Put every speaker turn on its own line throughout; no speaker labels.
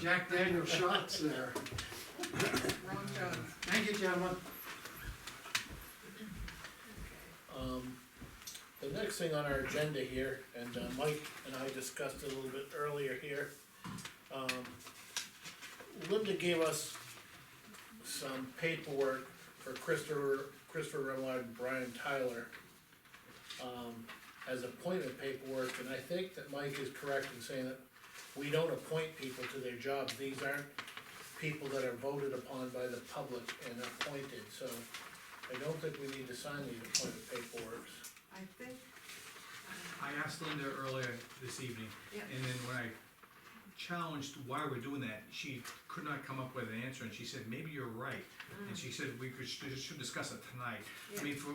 Jack Daniel shots there.
Ron Jones.
Thank you, gentlemen.
Um, The next thing on our agenda here, and uh, Mike and I discussed it a little bit earlier here. um, Linda gave us some paperwork for Christopher, Christopher Remillard and Brian Tyler. um, As appointment paperwork, and I think that Mike is correct in saying that we don't appoint people to their jobs, these aren't people that are voted upon by the public and appointed, so. I don't think we need to sign these appointment paperwork.
I think,
I asked Linda earlier this evening,
yeah,
and then when I challenged why we're doing that, she could not come up with an answer, and she said, maybe you're right. And she said, we could, should should discuss it tonight. I mean, for,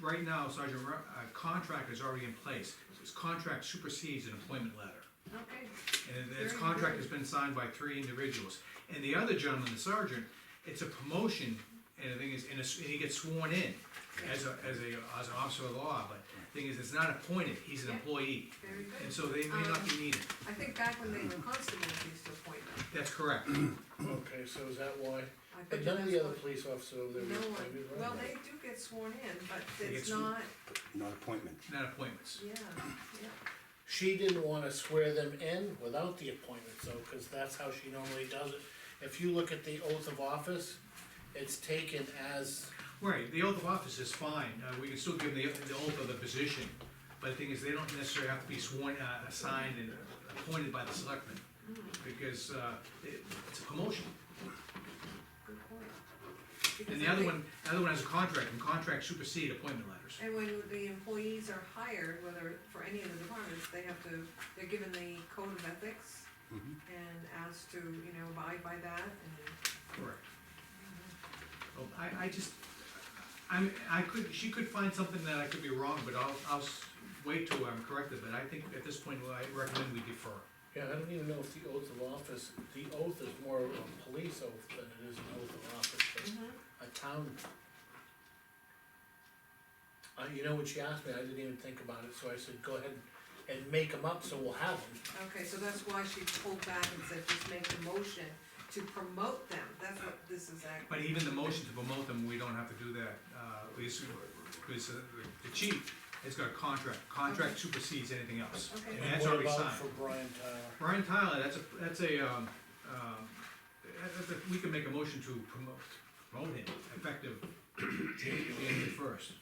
right now, Sergeant, Ru- uh, contract is already in place. This contract supersedes an employment letter.
okay,
And this
Very
contract
good.
has been signed by three individuals. And the other gentleman, the sergeant, it's a promotion, and the thing is, and it's- and he gets sworn in as a, as a, as an officer of law, but the thing is, it's not appointed, he's an
Yeah. Um.
employee.
very
And
good.
so they may not be needed,
I think back when they were constables, we used to appoint them.
that's correct.
Okay, so is that why?
I bet
But
you
none of
that's
the other
what-
police officers over there
No
were
one,
appointed, right?
well, they do get sworn in, but
They get
it's
sworn-
not,
not appointment.
Not appointments.
yeah, yeah.
She didn't wanna swear them in without the appointment though, cause that's how she normally does it. If you look at the oath of office, it's taken as,
Right, the oath of office is fine, uh, we can still give them the, the oath of the position, but the thing is, they don't necessarily have to be sworn, uh, assigned and appointed by the selectmen,
Hmm.
because, uh, it, it's a promotion.
Good point.
And
Because
the
I
other
think-
one, the other one has a contract, and contracts supersede appointment letters.
And when the employees are hired, whether for any of the departments, they have to, they're given the code of ethics
Mm-hmm.
Mhm.
and asked to, you know, abide by that and,
Correct. Well, I, I just, I'm, I could, she could find something that I could be wrong, but I'll, I'll s- wait till I'm corrected, but I think at this point, well, I recommend we defer.
yeah, I don't even know if the oath of office, the oath is more of a police oath than it is an oath of office,
Mm-hmm.
but a town. Uh, you know, when she asked me, I didn't even think about it, so I said, go ahead and make them up, so we'll have them.
okay, so that's why she pulled back and said, just make the motion to promote them, that's what this is act.
But even the motion to promote them, we don't have to do that, uh, is, because uh, the chief has got a contract, contract supersedes anything else.
Okay.
And that's already
What about
signed.
for Brian Tyler?
Brian Tyler, that's a, that's a, um, um, that- that- we can make a motion to promote, promote him effective January first.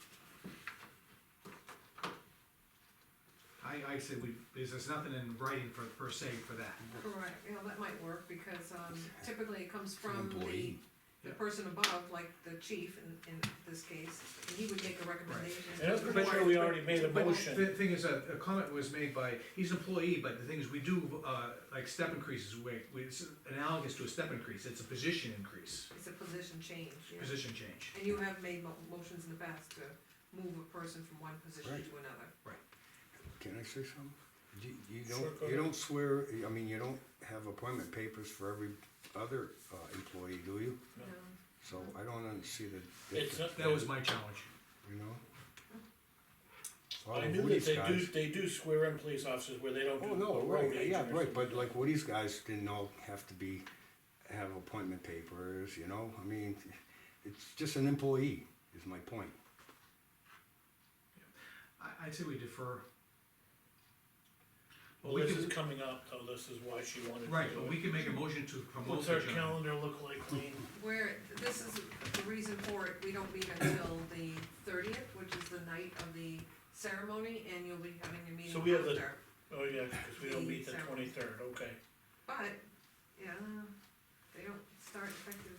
I, I say we, there's, there's nothing in writing for, per se for that.
Correct, you know, that might work, because um, typically it comes from the,
Employee.
the
Yeah.
person above, like the chief in, in this case, and he would make a recommendation.
And I'm pretty sure we already made a
But
motion.
The thing is, a, a comment was made by, he's an employee, but the thing is, we do, uh, like step increases, we, we- it's analogous to a step increase, it's a position increase,
It's a position change, yeah.
position change.
And you have made mo- motions in the past to move a person from one position
Right.
to another.
Can I say something? You, you
Sure, go
don't, you
ahead.
don't swear, I mean, you don't have appointment papers for every other uh, employee, do you?
No.
No.
So I don't under- see the
It's, not-
difference,
That was my challenge.
you know? A lot
I
of
knew that
Woody's
they do,
guys-
they do swear in police officers where they don't do.
Oh, no,
road
right, yeah,
agents.
right, but like Woody's guys didn't all have to be, have appointment papers, you know? I mean, it's just an employee, is my point.
I, I'd say we defer.
Well,
We
this
can-
is coming up, though, this is why she wanted to
Right,
do
but
it.
we can make a motion to promote
What's
the
our
gentleman.
calendar look like, Lean?
Where, this is the reason for it, we don't meet until the thirtieth, which is the night of the ceremony, and you'll be having a meeting
So we have the-
after.
Oh, yeah, because we don't meet the
Eight, seven.
twenty-third, okay.
But, yeah, they don't start effective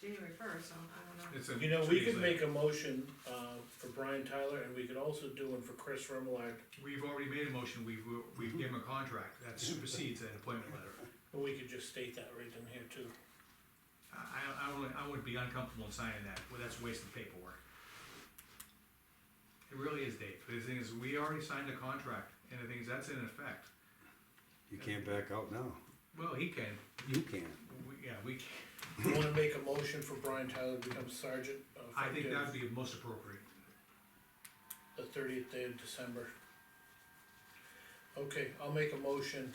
January first, so I don't know.
It's a-
You know, we could
Tuesday.
make a motion, uh, for Brian Tyler, and we could also do one for Chris Remillard,
We've already made a motion, we've, we've given a contract, that supersedes an appointment letter.
but we could just state that right in here too.
I, I, I would, I would be uncomfortable in signing that, well, that's a waste of paperwork. It really is, Dave, the thing is, we already signed a contract, and the thing is, that's in effect.
You can't back out now.
Well, he can,
You can.
we, yeah, we, can.
You wanna make a motion for Brian Tyler to become sergeant? uh,
I think that'd
effective
be most appropriate.
The thirtieth day of December. Okay, I'll make a motion